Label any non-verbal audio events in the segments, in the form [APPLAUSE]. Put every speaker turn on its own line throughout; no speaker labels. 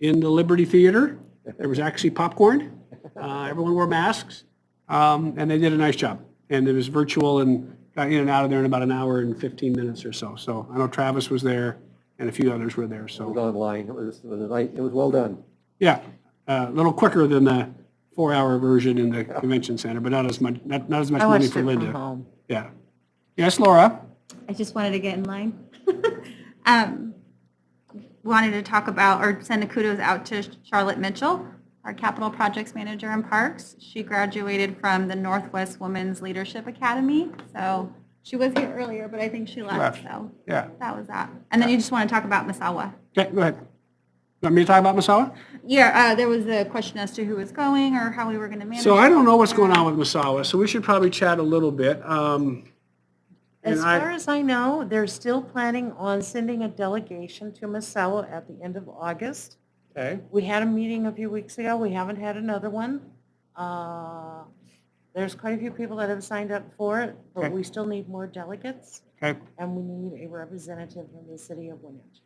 in the Liberty Theater. There was actually popcorn. Uh, Everyone wore masks. Um, And they did a nice job. And it was virtual and got in and out of there in about an hour and 15 minutes or so. So I know Travis was there and a few others were there, so.
was online. It was, it was a night, it was well done.
Yeah, uh, a little quicker than the four-hour version in the convention center, but not as much, not, not as much
I
money
watched it
for
from
Linda.
home.
Yeah. Yes, Laura?
I just wanted to get in line. [LAUGHS] Um, Wanted to talk about, or send a kudos out to Charlotte Mitchell, our capital projects manager in parks. She graduated from the Northwest Women's Leadership Academy, so she was here earlier, but I think she left,
left.
so
Yeah.
that was that. And then you just want to talk about Misawa.
Okay, go ahead. Want me to talk about Masawa?
Yeah, uh, there was a question as to who was going or how we were going to manage.
So I don't know what's
it.
going on with Masawa, so we should probably chat a little bit. Um,
As
And I-
far as I know, they're still planning on sending a delegation to Masawa at the end of August.
Okay.
We had a meeting a few weeks ago. We haven't had another one. Uh, There's quite a few people that have signed up for it, but
Okay.
we still need more delegates
Okay.
and we need a representative from the city of Winnet.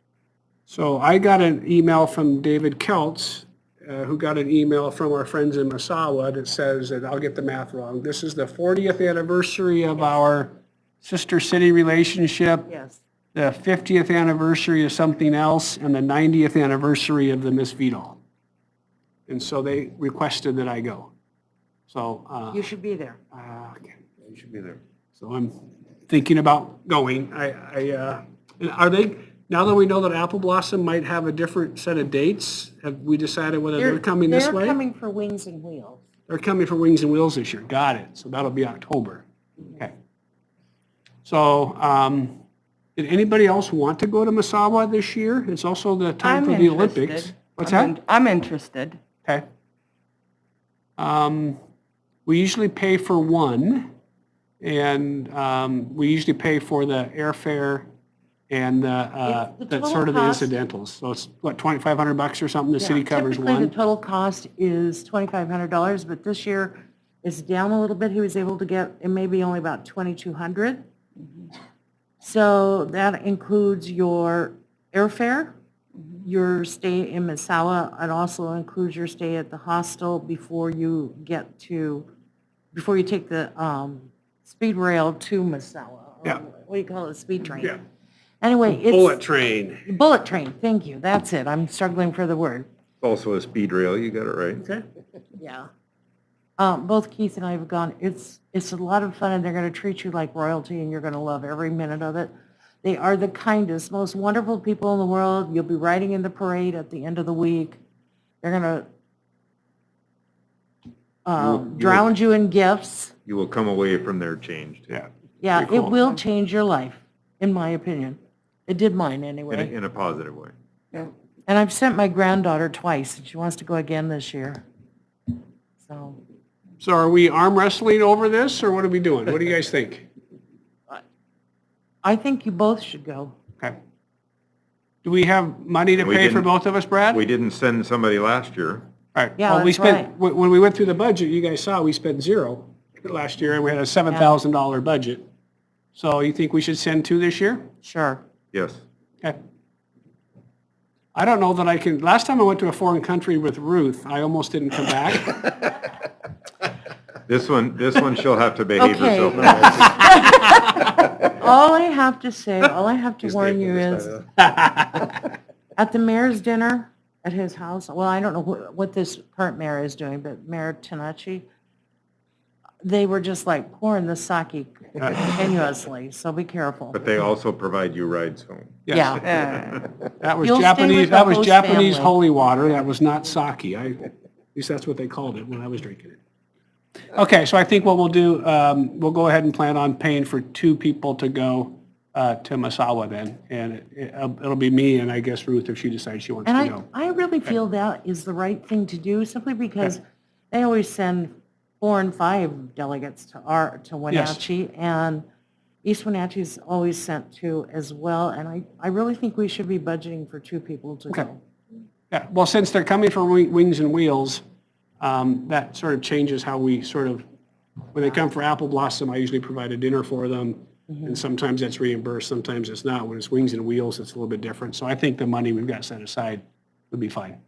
So I got an email from David Keltz, uh, who got an email from our friends in Masawa that says, that I'll get the math wrong, this is the 40th anniversary of our sister city relationship.
Yes.
the 50th anniversary of something else and the 90th anniversary of the Miss Vidal. And so they requested that I go. So, uh,
You should be there.
uh, okay.
You should be there.
so I'm thinking about going. I, I, uh, and are they, now that we know that Apple Blossom might have a different set of dates, have we decided whether they're coming this
They're
way?
coming for Wings and Wheels.
They're coming for Wings and Wheels this year. Got it. So that'll be October. Okay. So, um, did anybody else want to go to Masawa this year? It's also the time
I'm
for the Olympics.
interested.
What's
I'm
that?
in- I'm interested.
Okay. Um, we usually pay for one, and, um, we usually pay for the airfare and the, uh,
It's the
that's
total
sort of the
cost.
incidentals. So it's, what, 2,500 bucks or something? The city
Yeah,
covers
Typically,
one?
the total cost is $2,500, but this year is down a little bit. He was able to get, it may be only about 2,200.
Mm-hmm.
So that includes your airfare,
Mm-hmm.
your stay in Misawa, and also includes your stay at the hostel before you get to, before you take the um, speed rail to Misawa. or
Yeah.
What do you call it, speed train?
Yeah.
Anyway, it's.
train.
Bullet train, thank you, that's it, I'm struggling for the word.
Also a speed rail, you got it right.
Okay.
Yeah. Um, both Keith and I have gone, it's, it's a lot of fun and they're gonna treat you like royalty and you're gonna love every minute of it. They are the kindest, most wonderful people in the world. You'll be riding in the parade at the end of the week. They're gonna um,
you-
drown you in gifts.
You will come away from there changed.
Yeah.
Yeah,
Pretty
it
cool.
will change your life, in my opinion. It did mine
In a,
anyway.
in a positive way.
And I've sent my granddaughter twice and she wants to go again this year. So.
So are we arm wrestling over this, or what are we doing? What do you guys think?
I think you both should go.
Okay. Do we have money to
We
pay for
didn't-
both of us, Brad?
We didn't send somebody last year.
All right.
Yeah,
Well, we
that's
spent
right.
When when we went through the budget, you guys saw, we spent zero last year, and we had a $7,000 budget. So you think we should send two this year?
Sure.
Yes.
Okay. I don't know that I can, last time I went to a foreign country with Ruth, I almost didn't come back.
This one, this one she'll have to behave
Okay.
herself. now.
All I have to [LAUGHS] say, all I have to
She's
warn
making
you
this
is,
time up.
[LAUGHS] at the mayor's dinner at his house, well, I don't know wh- what this current mayor is doing, but Mayor Tenachi, they were just like pouring the
[LAUGHS]
sake continuously, so be careful.
But they also provide you rides home.
Yes.
Yeah,
Uh,
That was
You'll stay
Japanese,
with
that
the
was
host
Japanese
family.
holy water, that was not sake. I, at least that's what they called it when I was drinking it. Okay, so I think what we'll do, um, we'll go ahead and plan on paying for two people to go uh, to Masawa then. And it- it'll it'll be me and I guess Ruth if she decides she wants
and
to
I,
go.
I really feel that is the right thing to do simply because they always send four and five delegates to our, to Wenatchee. And East Wenatchee's always sent two as well. And I, I really think we should be budgeting for two people to
Okay.
go.
Yeah, well, since they're coming from Wi- Wings and Wheels, um, that sort of changes how we sort of, when they come for Apple Blossom, I usually provide a dinner for them. And sometimes that's reimbursed, sometimes it's not. When it's Wings and Wheels, it's a little bit different. So I think the money we've got set aside would be fine.